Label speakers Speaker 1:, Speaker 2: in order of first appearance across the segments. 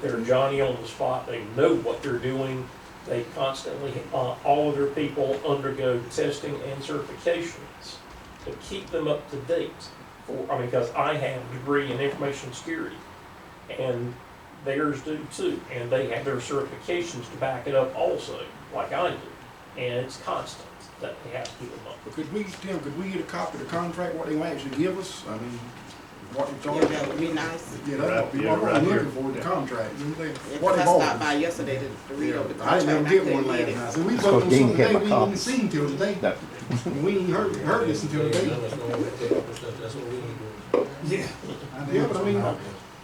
Speaker 1: they're Johnny on the spot, they know what they're doing. They constantly, uh, all of their people undergo testing and certifications to keep them up to date. For, I mean, because I have a degree in information security and theirs do too. And they have their certifications to back it up also, like I do. And it's constant that they have to keep them up.
Speaker 2: But Could we, Tim, could we get a copy of the contract, what they might actually give us? I mean, what it's all
Speaker 3: Yeah, that would
Speaker 2: about.
Speaker 3: be nice.
Speaker 2: Yeah, that's what we-
Speaker 4: Right, yeah,
Speaker 2: what we're
Speaker 4: right
Speaker 2: looking
Speaker 4: here.
Speaker 2: for, the contract. you know, they-
Speaker 3: Yeah,
Speaker 2: what
Speaker 3: cause I
Speaker 2: they bought.
Speaker 3: stopped by yesterday to, to read over the
Speaker 2: I
Speaker 3: contract,
Speaker 2: didn't
Speaker 3: and
Speaker 2: ever
Speaker 3: I
Speaker 2: get one
Speaker 3: couldn't
Speaker 2: last
Speaker 3: get it.
Speaker 2: night. So we
Speaker 5: That's
Speaker 2: looked
Speaker 5: what
Speaker 2: on
Speaker 5: Dean
Speaker 2: something today,
Speaker 5: kept my
Speaker 2: we
Speaker 5: copy.
Speaker 2: didn't see till today.
Speaker 5: No.
Speaker 2: We ain't heard, heard this until today.
Speaker 6: That's what we need to do.
Speaker 2: Yeah. Yeah, but I mean,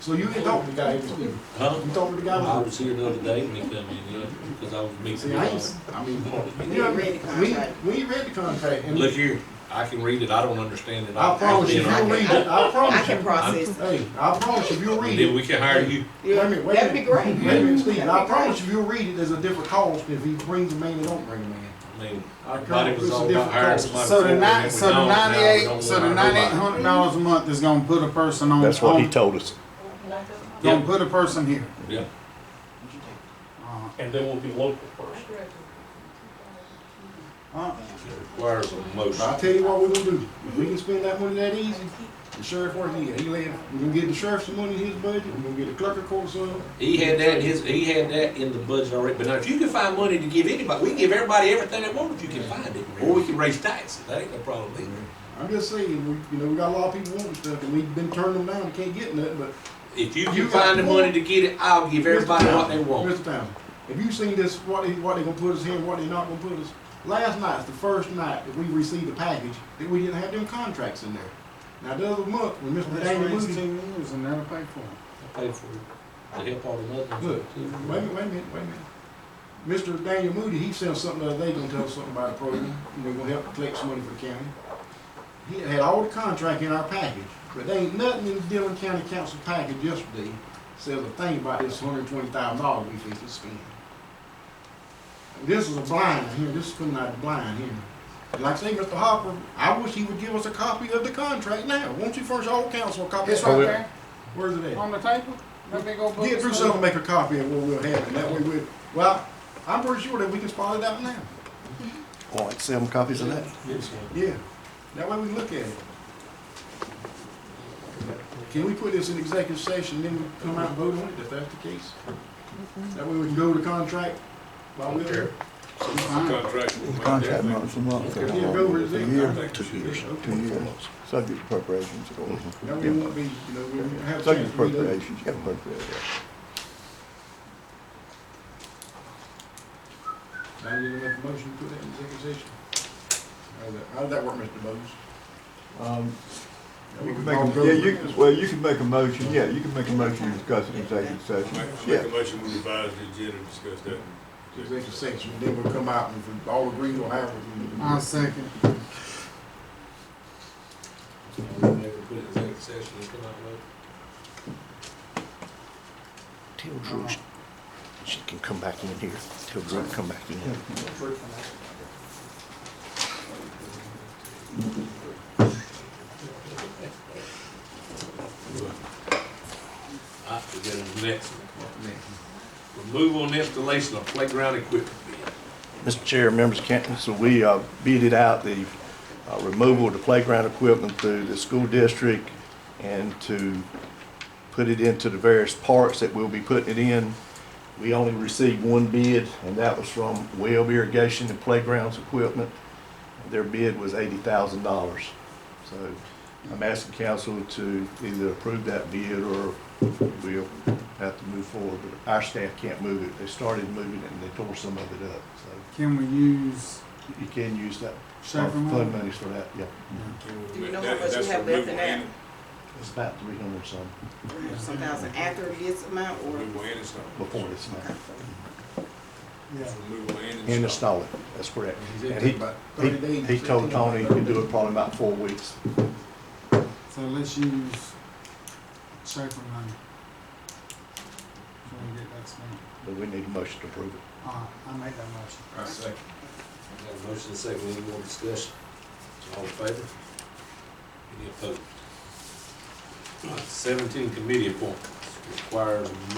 Speaker 2: so you didn't talk to the guy, you
Speaker 6: Huh?
Speaker 2: talked to the
Speaker 6: I
Speaker 2: guy.
Speaker 6: was here the other day when he come in, yeah, because I was meeting.
Speaker 2: See, I ain't, I mean,
Speaker 3: We
Speaker 2: you know,
Speaker 3: didn't read the
Speaker 2: we,
Speaker 3: contract.
Speaker 2: we ain't read the contract. and
Speaker 6: Look here, I can read it, I don't understand it.
Speaker 2: I promise you, if
Speaker 6: I'll be all
Speaker 2: you'll
Speaker 6: right.
Speaker 2: read it, I
Speaker 3: I
Speaker 2: promise
Speaker 3: can
Speaker 2: you.
Speaker 3: process it.
Speaker 2: Hey, I promise you, if you'll read
Speaker 6: Then
Speaker 2: it.
Speaker 6: we can hire you.
Speaker 2: Wait a minute, wait a
Speaker 3: That'd be
Speaker 2: minute.
Speaker 3: great.
Speaker 2: Wait a minute, Steve,
Speaker 3: That'd
Speaker 2: I
Speaker 3: be
Speaker 2: promise
Speaker 3: great.
Speaker 2: you, if you'll read it, there's a different cost if he brings a man or don't bring a man.
Speaker 6: I mean,
Speaker 2: I
Speaker 6: everybody was all about hiring somebody.
Speaker 7: So the
Speaker 6: before, and
Speaker 7: nine,
Speaker 6: then we
Speaker 7: so the
Speaker 6: don't, now we
Speaker 7: ninety-eight,
Speaker 6: don't
Speaker 7: so the
Speaker 6: want to hire
Speaker 7: ninety-eight
Speaker 6: nobody.
Speaker 7: hundred dollars a month is gonna put a person on.
Speaker 5: That's what he
Speaker 7: on-
Speaker 5: told us.
Speaker 7: Gonna put a person here.
Speaker 6: Yeah,
Speaker 7: Uh,
Speaker 1: And they will be local first.
Speaker 7: uh,
Speaker 6: it requires a
Speaker 2: Uh-huh. But
Speaker 6: motion.
Speaker 2: I'll tell you what we gonna do, if we can spend that money that easy, the sheriff where he at, he laid, we gonna get the sheriff some money in his budget, we gonna get the clerk of court some.
Speaker 6: He had that in his, he had that in the budget already, but now if you can find money to give anybody, we can give everybody everything they want if you can find it, or we can raise taxes, that ain't no problem either.
Speaker 2: I'm just saying, we, you know, we got a lot of people wanting stuff, and we've been turning them down, we can't get nothing, but
Speaker 6: If you
Speaker 2: You
Speaker 6: can
Speaker 2: got
Speaker 6: find the
Speaker 2: more-
Speaker 6: money to get it, I'll give everybody
Speaker 2: Mr.
Speaker 6: what they
Speaker 2: Townsend,
Speaker 6: want.
Speaker 2: Mr. Townsend, have you seen this, what they, what they gonna put us here, and what they not gonna put us? Last night's the first night that we received a package that we didn't have them contracts in there. Now, the other month, when Mr.
Speaker 7: That's
Speaker 2: Daniel
Speaker 7: raised
Speaker 2: Moody,
Speaker 7: two years and never paid for it.
Speaker 6: I Pay for it, to help all the others.
Speaker 2: look, wait a minute, wait a minute, wait a minute. Mr. Daniel Moody, he sent something the other day, gonna tell us something about a program, and they're gonna help collect some money for the county. He had all the contract in our package, but there ain't nothing in the Dillon County Council package yesterday says a thing about this hundred and twenty thousand dollars we fixed to spend. This is a blind here, this is coming out of the blind here. And Like I say, Mr. Hopper, I wish he would give us a copy of the contract now. Won't you furnish all council a copy?
Speaker 7: It's
Speaker 5: Well, we-
Speaker 7: right there
Speaker 2: Where's it at?
Speaker 7: on the table. That big old book.
Speaker 2: Get through something, make a copy of what we'll have, and that way we, well, I'm pretty sure that we can spot it out now.
Speaker 5: All right, sell them copies of that.
Speaker 6: Yes, sir.
Speaker 2: Yeah, that way we look at it. Can we put this in executive session, then we come out and vote on it, if that's the case? That way we can go to contract while we're there.
Speaker 5: Contract month to month.
Speaker 2: Yeah, go over it.
Speaker 5: A year,
Speaker 2: Two years.
Speaker 5: two years. Subject appropriations. or-
Speaker 2: That way we won't be, you know, we won't have. a chance
Speaker 5: Subject
Speaker 2: to read it.
Speaker 5: appropriations, yeah, appropriations.
Speaker 2: Now you make a motion to put that in executive session. How's that, how'd that work, Mr. Bowes?
Speaker 5: Um,
Speaker 2: That
Speaker 5: You
Speaker 2: way
Speaker 5: can
Speaker 2: we
Speaker 5: make,
Speaker 2: all
Speaker 5: a-
Speaker 2: go
Speaker 5: yeah,
Speaker 2: over
Speaker 5: you,
Speaker 2: it.
Speaker 5: can- well, you can make a motion, yeah, you can make a motion to discuss an executive session,
Speaker 4: Make
Speaker 5: yeah.
Speaker 4: make a motion, we revise the agenda, and discuss that.
Speaker 2: executive section, then we'll come out and if we all agree we'll have
Speaker 7: I
Speaker 2: it.
Speaker 7: second.
Speaker 6: Never put it in executive session, it's come out well.
Speaker 5: Tell Drew she- she can come back in here. Tell Drew to come back in here.
Speaker 6: All right, we got the next one. Removal and installation of playground equipment bid.
Speaker 5: Mr. Chair, members of council, we uh, beaded out the uh, removal of the playground equipment through the school district and to put it into the various parks that we'll be putting it in. We only received one bid, and that was from Webb Irrigation and Playgrounds Equipment. Their bid was eighty thousand dollars. So I'm asking council to either approve that bid or we'll have to move forward. But our staff can't move it. They started moving it and they tore some of it up, so
Speaker 7: Can we use
Speaker 5: you can use that
Speaker 7: second
Speaker 5: fund
Speaker 7: one?
Speaker 5: monies for that, yeah.
Speaker 3: Do you know
Speaker 4: That-
Speaker 3: how much
Speaker 4: that's
Speaker 3: you have
Speaker 4: removal
Speaker 3: left in that?
Speaker 4: and-
Speaker 5: It's about three hundred some
Speaker 3: Some thousand after this amount or?
Speaker 4: Removal and install.
Speaker 5: before it's
Speaker 3: Okay.
Speaker 5: now.
Speaker 7: Yeah.
Speaker 4: Removal and
Speaker 5: And
Speaker 4: install.
Speaker 5: install it, that's correct. And he,
Speaker 2: About
Speaker 5: he,
Speaker 2: 30 days,
Speaker 5: he told
Speaker 2: 15,
Speaker 5: Tony he could do
Speaker 2: 30.
Speaker 5: it probably about four weeks.
Speaker 7: So let's use second one. So we get that spent.
Speaker 5: But we need a motion to approve it.
Speaker 7: Uh, I made that motion.
Speaker 2: I second.
Speaker 6: Got a motion and a second, any more discussion? All in favor? Any opposed? All right, Seventeen committee appointments requires a motion.